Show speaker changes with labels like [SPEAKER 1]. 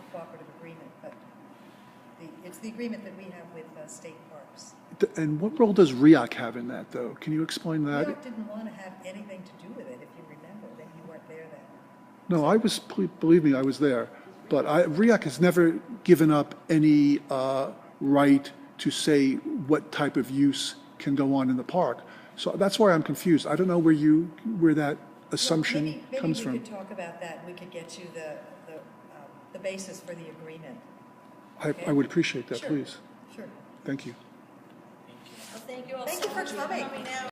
[SPEAKER 1] agreement, but the- it's the agreement that we have with uh, state parks.
[SPEAKER 2] Th- And what role does RIAC have in that, though? Can you explain that?
[SPEAKER 1] York didn't want to have anything to do with it, if you remember, that you weren't there then.
[SPEAKER 2] No, I was, ple- believe me, I was there. But I, RIAC has never given up any uh, right to say what type of use can go on in the park. So that's why I'm confused. I don't know where you, where that assumption
[SPEAKER 1] Maybe- maybe
[SPEAKER 2] comes
[SPEAKER 1] we
[SPEAKER 2] from.
[SPEAKER 1] could talk about that, we could get you the, the, um, the basis for the agreement.
[SPEAKER 2] I, I would appreciate that,
[SPEAKER 1] Sure.
[SPEAKER 2] please.
[SPEAKER 1] Sure.
[SPEAKER 2] Thank you.
[SPEAKER 3] Well, thank you all
[SPEAKER 1] Thank
[SPEAKER 3] so
[SPEAKER 1] you for
[SPEAKER 3] much
[SPEAKER 1] coming.
[SPEAKER 3] out.